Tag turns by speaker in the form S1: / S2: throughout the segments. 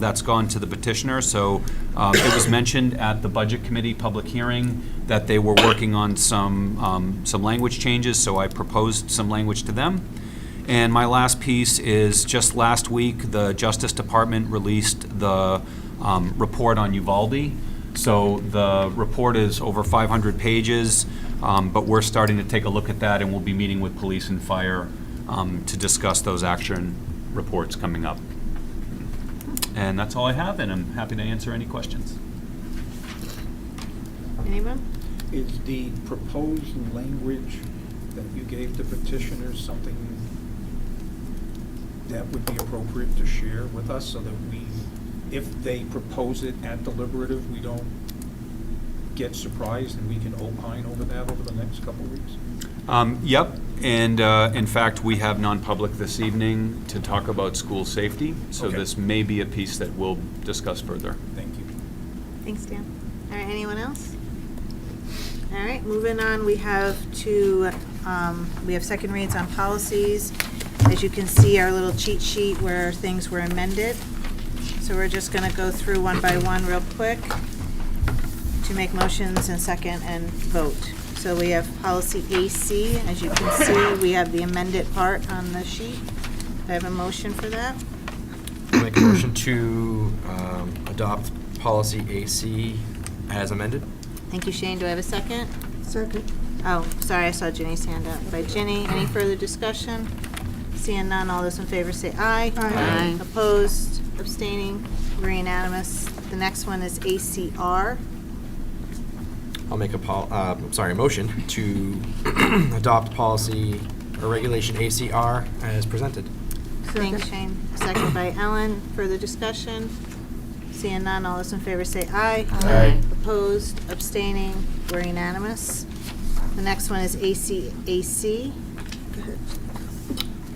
S1: That's gone to the petitioner, so um, it was mentioned at the Budget Committee public hearing that they were working on some, um, some language changes, so I proposed some language to them. And my last piece is, just last week, the Justice Department released the um, report on Uvalde. So the report is over 500 pages, um, but we're starting to take a look at that, and we'll be meeting with police and fire um, to discuss those action reports coming up. And that's all I have, and I'm happy to answer any questions.
S2: Anyone?
S3: Is the proposed language that you gave the petitioners something that would be appropriate to share with us so that we, if they propose it at deliberative, we don't get surprised and we can opine over that over the next couple of weeks?
S1: Um, Yep, and uh, in fact, we have non-public this evening to talk about school safety, so
S3: Okay.
S1: this may be a piece that we'll discuss further.
S3: Thank you.
S2: Thanks, Dan. All right, anyone else? All right, moving on, we have two, um, we have second reads on policies. As you can see, our little cheat sheet where things were amended. So we're just gonna go through one by one real quick to make motions and second and vote. So we have policy AC, as you can see, we have the amended part on the sheet. Do I have a motion for that?
S4: Make a motion to um, adopt policy AC as amended?
S2: Thank you, Shane. Do I have a second?
S5: Second.
S2: Oh, sorry, I saw Ginny's hand up. By Ginny, any further discussion? Seeing none, all those in favor say aye.
S5: Aye. Aye.
S2: Opposed, abstaining, we're unanimous. The next one is ACR.
S4: I'll make a pol, uh, I'm sorry, a motion to adopt policy or regulation ACR as presented.
S2: Thanks, Shane. Second by Ellen. Further discussion? Seeing none, all those in favor say aye.
S4: Aye.
S2: Opposed, abstaining, we're unanimous. The next one is ACAC.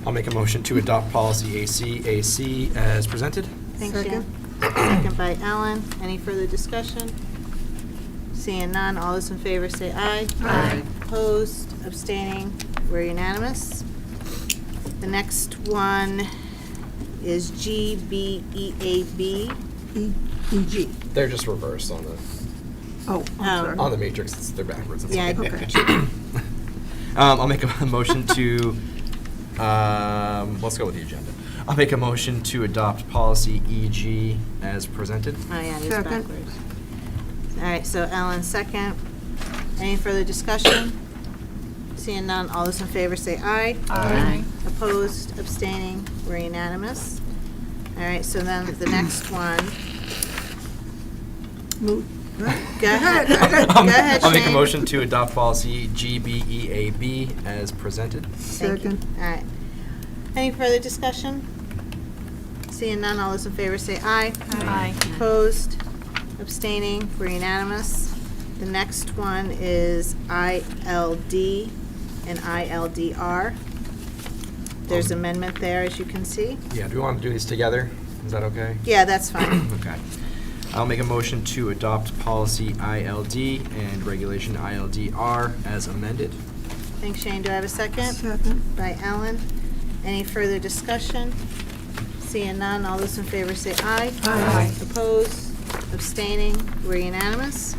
S4: I'll make a motion to adopt policy AC, AC as presented.
S2: Thanks, Jan.
S5: Second.
S2: Second by Ellen. Any further discussion? Seeing none, all those in favor say aye.
S5: Aye.
S2: Opposed, abstaining, we're unanimous. The next one is E GBEAB.
S5: E, EG.
S4: They're just reversed on the,
S2: Oh.
S5: Oh, I'm
S4: on
S5: sorry.
S4: the matrix, it's- they're backwards. it's
S2: Yeah, I
S4: okay.
S5: Okay.
S4: Um, I'll make a motion to, um, let's go with the agenda. I'll make a motion to adopt policy EG as presented.
S2: Oh, yeah, it is
S5: Second.
S2: backwards. All right, so Ellen, second. Any further discussion? Seeing none, all those in favor say aye.
S5: Aye.
S2: Opposed, abstaining, we're unanimous. All right, so then the next one.
S5: Move.
S2: Go ahead, go
S4: Um,
S2: ahead,
S4: I'll make a
S2: Shane.
S4: motion to adopt policy GBEAB as presented.
S2: Thank you.
S5: Second.
S2: All right. Any further discussion? Seeing none, all those in favor say aye.
S5: Aye.
S2: Opposed, abstaining, we're unanimous. The next one is ILD and ILDR. There's
S4: Um,
S2: amendment there, as you can see.
S4: Yeah, do we want to do these together? Is that okay?
S2: Yeah, that's fine.
S4: Okay. I'll make a motion to adopt policy ILD and regulation ILDR as amended.
S2: Thanks, Shane. Do I have a second?
S5: Second.
S2: By Ellen. Any further discussion? Seeing none, all those in favor say aye.
S5: Aye.
S2: Opposed, abstaining, we're unanimous.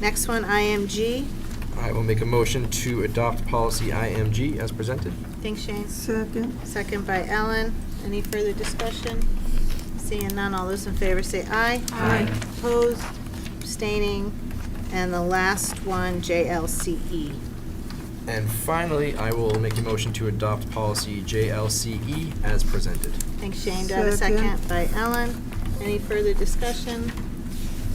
S2: Next one, IMG.
S4: I will make a motion to adopt policy IMG as presented.
S2: Thanks, Shane.
S5: Second.
S2: Second by Ellen. Any further discussion? Seeing none, all those in favor say aye.
S5: Aye.
S2: Opposed, abstaining, and the last one, JLCE.
S4: And finally, I will make a motion to adopt policy JLCE E as presented.
S2: Thanks, Shane. Do I have a
S5: Second.
S2: second? By Ellen. Any further discussion?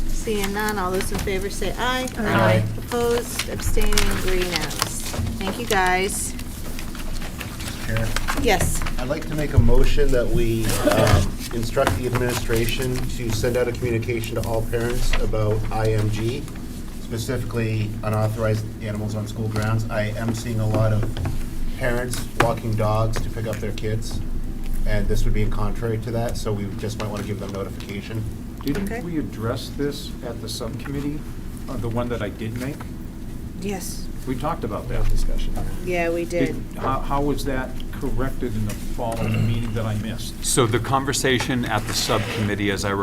S2: Seeing none, all those in favor say aye.
S5: Aye.
S2: Opposed, abstaining, we're unanimous. Thank you, guys.
S6: Karen,
S2: Yes,
S6: I'd like to make a motion that we um, instruct the administration to send out a communication to all parents about IMG, specifically unauthorized animals on school grounds. I am seeing a lot of parents walking dogs to pick up their kids, and this would be contrary to that, so we just might want to give them notification.
S2: Okay.
S3: Didn't we address this at the subcommittee, uh, the one that I did make?
S2: yes.
S3: We talked about that discussion.
S2: Yeah, we did.
S3: How, how was that corrected in the following meeting that I missed.
S1: So the conversation at the subcommittee, as I